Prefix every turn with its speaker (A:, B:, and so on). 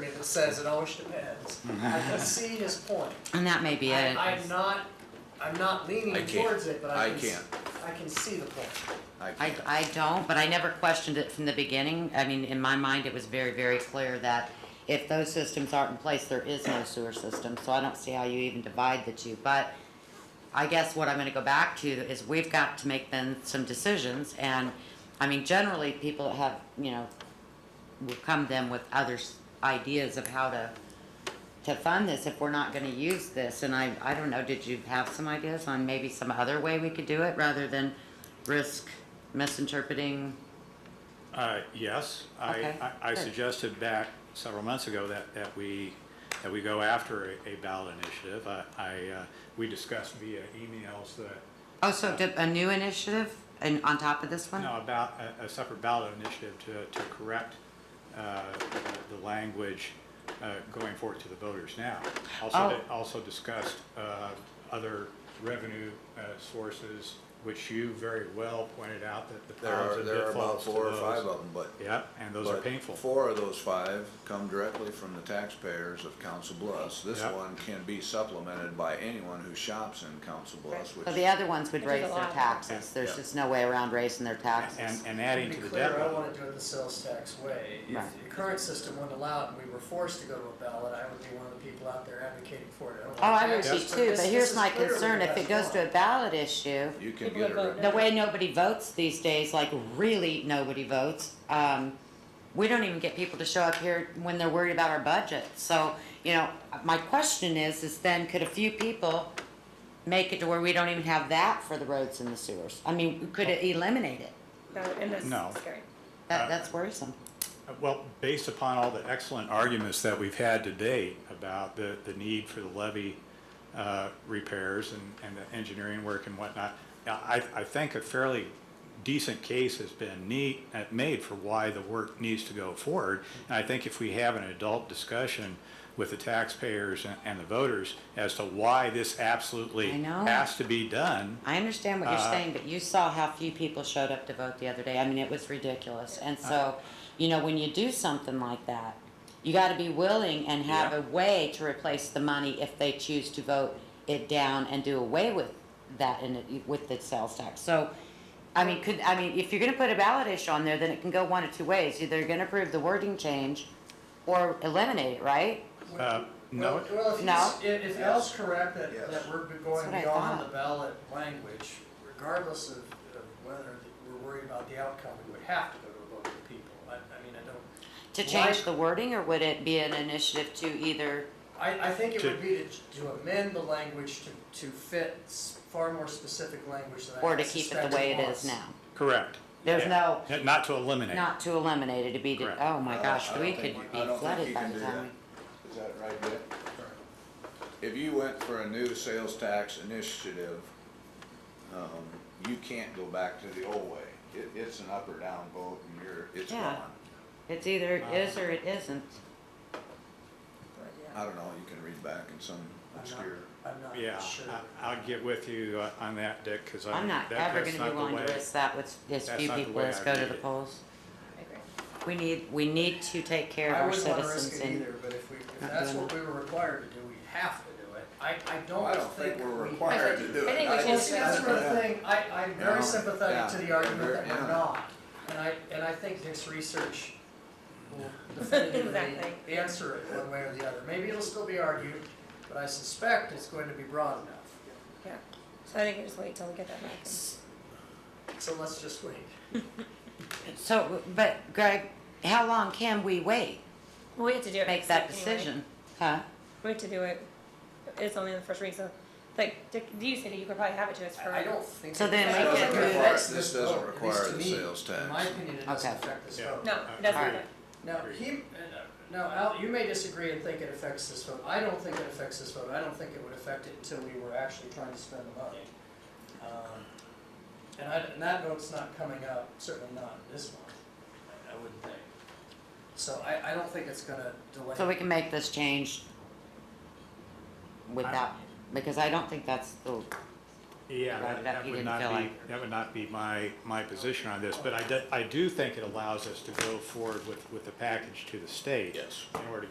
A: that says it always depends. I can see his point.
B: And that may be
A: I-
B: it.
A: I'm not, I'm not leaning
C: I can't.
A: towards it, but I
C: I
A: can, s- I can see the point.
B: I, I don't, but I never questioned it from the beginning. I mean, in my mind, it was very, very clear that if those systems aren't in place, there is no sewer system, so I don't see how you even divide the two. But I guess what I'm gonna go back to is we've got to make then some decisions, and, I mean, generally, people that have, you know, will come then with other s- ideas of how to, to fund this if we're not gonna use this, and I, I don't know, did you have some ideas on maybe some other way we could do it rather than risk misinterpreting?
D: Uh, Yes, I,
B: Okay,
D: I- I
B: good.
D: suggested back several months ago that, that we, that we go after a- a ballot initiative. I- I, uh, we discussed via emails that,
B: Oh, so did a new initiative and on top of this one?
D: no, about a, a separate ballot initiative to, to correct uh, the language uh, going forward to the voters now.
B: Oh.
D: Also, they also discussed uh, other revenue uh, sources, which you very well pointed out that the
C: There
D: problems
C: are,
D: and
C: there are about
D: pitfalls to
C: four or
D: those.
C: five of them, but.
D: Yep, and those are
C: but
D: painful.
C: Four of those five come directly from the taxpayers of Council Bluffs. This
D: Yep.
C: one can be supplemented by anyone who shops in Council Bluffs, which.
B: So the other ones would
E: There's a
B: raise their
E: lot.
B: taxes, there's
C: Yeah.
B: just no way around raising their
D: And,
B: taxes.
D: and
A: To
D: adding
A: be
D: to the
A: clear,
D: debt
A: I
D: level.
A: want to do it the sales tax way. If
B: Right.
A: the current system wouldn't allow it and we were forced to go to a ballot, I would be one of the people out there advocating for it.
B: Oh, I would be
D: Yes.
B: too, but here's my concern, if it goes to a ballot issue,
C: You can
E: People
C: get a.
E: that vote
C: rep-
B: the way nobody votes these days, like really nobody votes, um, we don't even get people to show up here when they're worried about our budget. So, you know, my question is, is then could a few people make it to where we don't even have that for the roads and the sewers? I mean, could it eliminate it?
E: No, and that's
D: No.
E: scary.
B: That, that's worrisome.
D: Well, based upon all the excellent arguments that we've had today about the, the need for the levee uh, repairs and, and the engineering work and whatnot, I, I think a fairly decent case has been neat, uh, made for why the work needs to go forward. And I think if we have an adult discussion with the taxpayers and, and the voters as to why this absolutely
B: I know.
D: has to be done,
B: I understand what you're
D: Uh,
B: saying, but you saw how few people showed up to vote the other day. I mean, it was ridiculous. And so, you know, when you do something like that, you gotta be willing and have
D: Yeah.
B: a way to replace the money if they choose to vote it down and do away with that and it- with the sales tax. So, I mean, could, I mean, if you're gonna put a ballot issue on there, then it can go one of two ways. Either you're gonna approve the wording change or eliminate it, right?
D: uh, no.
A: Well, Well, if
B: No.
A: it's, if if Al's correct that,
C: Yes.
A: that we're
B: what
A: going
B: I
A: beyond
B: thought.
A: the ballot language, regardless of of whether we're worried about the outcome, we would have to go to a vote of the people. I, I mean, I don't,
B: To
A: Why-
B: change the wording, or would it be an initiative to either,
A: I, I think it
D: To-
A: would be to, to amend the language to, to fit s- far more specific language than I
B: or to keep it
A: suspect
B: the way it
A: was.
B: is now?
D: Correct.
B: There's
D: Yeah. Not to eliminate.
B: Not to eliminate it, to be,
D: Correct.
B: oh my
C: Uh,
B: gosh,
C: I don't
B: we
C: think
B: could
C: you-
B: be
C: I don't think
B: flooded
C: you
B: by
C: can
B: the
C: do
B: time.
C: that. Is that right, Dick? If you went for a new sales tax initiative, um, you can't go back to the old way. It, it's an up or down vote and you're, it's
B: Yeah.
C: gone.
B: we- It's either it is or it isn't.
C: I don't know, you can read back in some
A: I'm not-
C: obscure.
A: I'm not
D: Yeah,
A: sure.
D: I- I'll get with you uh, on that, Dick, because I.
B: I'm not
D: that-
B: ever
D: that's
B: gonna be
D: not the
B: willing to
D: way-
B: risk that with as
D: that's
B: few
D: not the
B: people
D: way
B: as
D: I
B: go to
D: read
B: the
D: it.
B: polls.
E: I agree.
B: We need, we need to take care of
A: I
B: our
A: wouldn't want to risk
B: citizens
A: it
B: and,
A: either, but if we, if
B: not
A: that's
B: doing
A: what we were required to do, we have to do it. I, I
C: Well,
A: don't
C: I don't
A: think
C: think we're
A: we-
C: required to do it.
E: I think we
A: Well,
E: should
A: see, that's the
C: Yeah.
A: thing, I, I'm
C: Yeah.
A: very sympathetic to the argument
C: Yeah.
A: that we're not, and I, and I think Dick's research will definitively
E: Exactly.
A: answer it one way or the other. Maybe it'll still be argued, but I suspect it's going to be broad enough,
E: Yeah. So I think we just wait till we get that back. and-
A: so let's just wait.
B: so, but Greg, how long can we wait?
E: Well, we have to do it.
B: Make
E: next
B: that
E: week anyway.
B: decision, huh?
E: We have to do it. It's only the first reading, so like Dick, you said you could probably have it to us for.
A: I I don't think.
B: So
A: it
B: then
C: we
A: doesn't
C: can
A: affect
C: move-
A: this
C: This doesn't
A: vote, at least
C: require
A: to
C: the
A: me.
C: sales
A: In my
C: tax.
A: opinion, it doesn't
B: Okay.
A: affect this
D: Yeah.
A: vote.
E: No,
D: I-
E: it doesn't.
B: Alright.
E: matter.
A: Now, he, now, Al, you may disagree and think it affects this vote. I don't think it affects this vote. I don't think it would affect it until we were actually trying to spend the money. Um, And I, and that vote's not coming up, certainly not this month, I- I wouldn't think. So I, I don't think it's gonna delay.
B: So we can make this change without, because I don't think that's the,
D: Yeah,
B: Right, that
D: that- that
B: you
D: would
B: didn't
D: not
B: feel
D: be,
B: like-
D: that would not be my, my position on this, but I do, I do think it allows us to go forward with, with the package to the state.
C: Yes.
D: In order to